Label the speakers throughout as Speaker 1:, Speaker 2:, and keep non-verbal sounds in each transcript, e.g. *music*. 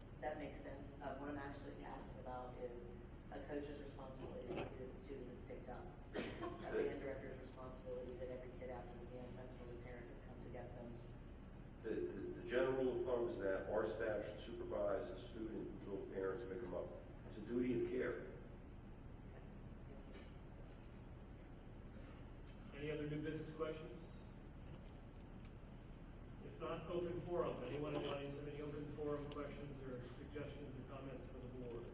Speaker 1: Uh, actually asked about is a coach's responsibility to see that the student is picked up. A band director's responsibility that every kid after the band festival, the parent has come to get them.
Speaker 2: The, the, the general rule of thumb is that our staff should supervise the student until parents pick them up. It's a duty of care.
Speaker 3: Any other new business questions? If not, open forum, anyone in the audience have any open forum questions or suggestions or comments for the board?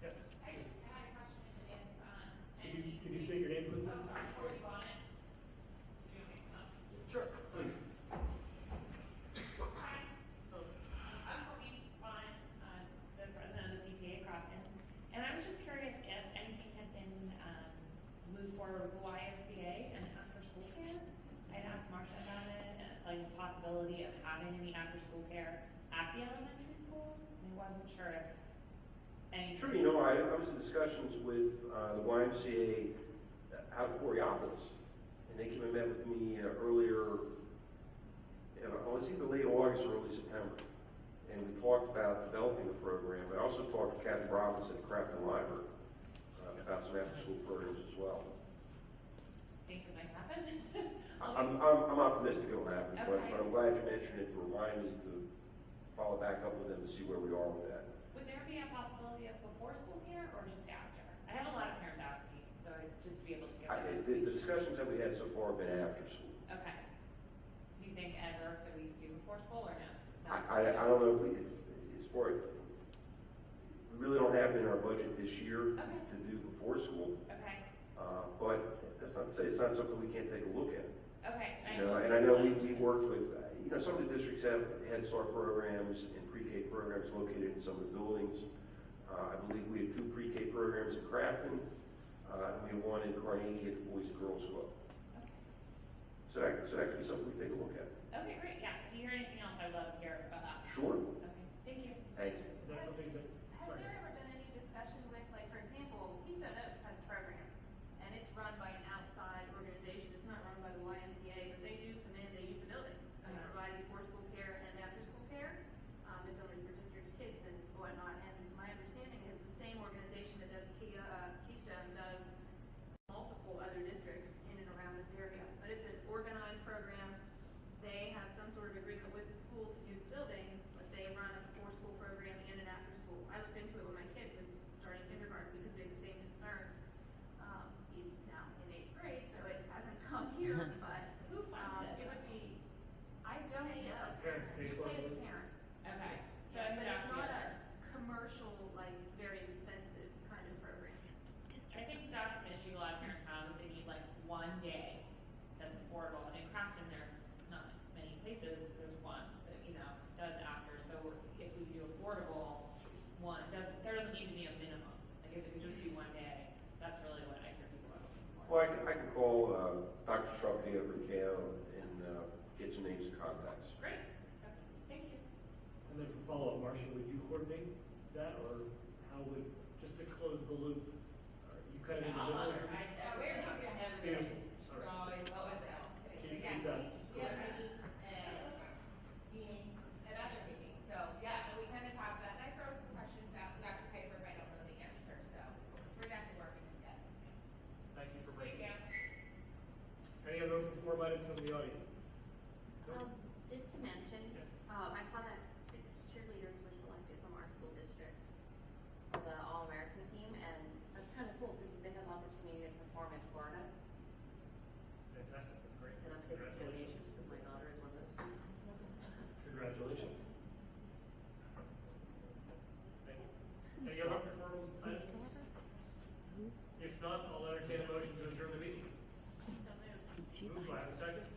Speaker 3: Yes,
Speaker 4: I just had a question if, um,
Speaker 3: could you, could you state your name, please?
Speaker 4: I'm sorry, Cory Bonnet. You want me to come?
Speaker 3: Sure, please.
Speaker 4: Hi. I'm Courtney Vaughn, uh, the president of the PTA Crofton, and I was just curious if anything had been um, moved forward with the YMCA and after-school care? I'd asked Marsha about it, and, like the possibility of having any after-school care at the elementary school, and I wasn't sure if any.
Speaker 2: Sure, you know, I, I was in discussions with, uh, the YMCA out of Coriopolis, and they came and met with me uh, earlier, and I was either late August or early September, and we talked about developing the program, but I also talked to Kathy Robinson at Crafton Library uh, about some after-school programs as well.
Speaker 4: Think it might happen?
Speaker 2: I- I'm, I'm, I'm optimistic it'll happen, but,
Speaker 4: Okay.
Speaker 2: but I'm glad you mentioned it to remind me to follow back up with them and see where we are with that.
Speaker 4: Would there be a possibility of before school care or just after? I have a lot of parents asking, so I'd just be able to get
Speaker 2: I,
Speaker 4: that.
Speaker 2: the, the discussions that we had so far have been after school.
Speaker 4: Okay. Do you think ever that we do before school or no?
Speaker 2: I, I, I don't know if we, if, as far, as- we really don't have it in our budget this year
Speaker 4: Okay.
Speaker 2: to do before school,
Speaker 4: Okay,
Speaker 2: uh, but that's not to say it's not something we can't take a look at.
Speaker 4: okay.
Speaker 2: You know, and I know we, we worked with, uh, you know, some of the districts have Head Start programs and pre-K programs located in some of the buildings. Uh, I believe we have two pre-K programs in Crafton, uh, and we have one in Carnegie at the Boys and Girls Club. So that, so that could be something we take a look at.
Speaker 4: Okay, great, yeah. If you hear anything else, I'd love to hear about that.
Speaker 2: Sure.
Speaker 4: Okay, thank you.
Speaker 2: Thanks.
Speaker 3: Is that something that,
Speaker 5: Has
Speaker 3: sorry.
Speaker 5: there ever been any discussion with, like, for example, Keystone Oaks has a program, and it's run by an outside organization, it's not run by the YMCA, but they do come in, they use the buildings, and they
Speaker 4: Uh-huh.
Speaker 5: provide before-school care and after-school care, um, it's only for district kids and whatnot, and my understanding is the same organization that does Key, uh, Keystone does multiple other districts in and around this area, but it's an organized program, they have some sort of agreement with the school to use the building, but they run a before-school program and an after-school. I looked into it when my kid was starting kindergarten because we had the same concerns. Um, he's now in eighth grade, so it hasn't *laughs* come here, but,
Speaker 4: Who
Speaker 5: um,
Speaker 4: funds it?
Speaker 5: it would be, I don't
Speaker 4: Pay
Speaker 5: know.
Speaker 4: as a
Speaker 3: parent, pay
Speaker 5: You
Speaker 3: for
Speaker 5: pay as a
Speaker 3: it.
Speaker 5: parent.
Speaker 4: Okay, so I
Speaker 5: Yeah, But
Speaker 4: could ask you.
Speaker 5: it's not a commercial, like, very expensive kind of program.
Speaker 4: I think that's an issue a lot of parents have, is they need like one day that's affordable, and in Crafton, there's not many places, there's one, that, you know, does after, so if we do affordable, one, doesn't, there doesn't need to be a minimum, like if it could just be one day, that's really what I hear people are looking for.
Speaker 2: Well, I can, I can call, uh, Dr. Shrubney over in Cal and, uh, get some names and contacts.
Speaker 4: Great, Okay. thank you.
Speaker 3: And then for follow-up, Marcia, would you coordinate that, or how would, just to close the loop, are you kind of in the
Speaker 6: I'll
Speaker 3: middle?
Speaker 6: honor, I, uh, we're talking about
Speaker 3: Beautiful.
Speaker 6: everything,
Speaker 3: All
Speaker 6: so
Speaker 3: right.
Speaker 6: it's always out. But
Speaker 3: Keep-
Speaker 6: yes,
Speaker 3: keep
Speaker 6: we,
Speaker 3: that.
Speaker 6: we have meetings, uh, meetings at other meetings, so, yeah, and we kind of talk about, and I throw some questions out to Dr. Piper, but I don't know the answer, so we're definitely working on that.
Speaker 3: Thank you for
Speaker 6: Thank
Speaker 3: bringing it.
Speaker 6: you.
Speaker 3: Any other open forum items from the audience? No?
Speaker 7: Um, Just to mention,
Speaker 3: Yes.
Speaker 7: um, I saw that six cheerleaders were selected from our school district for the All-American team, and that's kind of cool because they had an opportunity to perform in Florida,
Speaker 3: Fantastic, that's great.
Speaker 7: and I took a donation
Speaker 3: Congratulations.
Speaker 7: because my daughter is one of those students.
Speaker 3: Congratulations. Thank you. Any other open forum items? If not, I'll entertain a motion to adjourn the meeting. Moved by a second,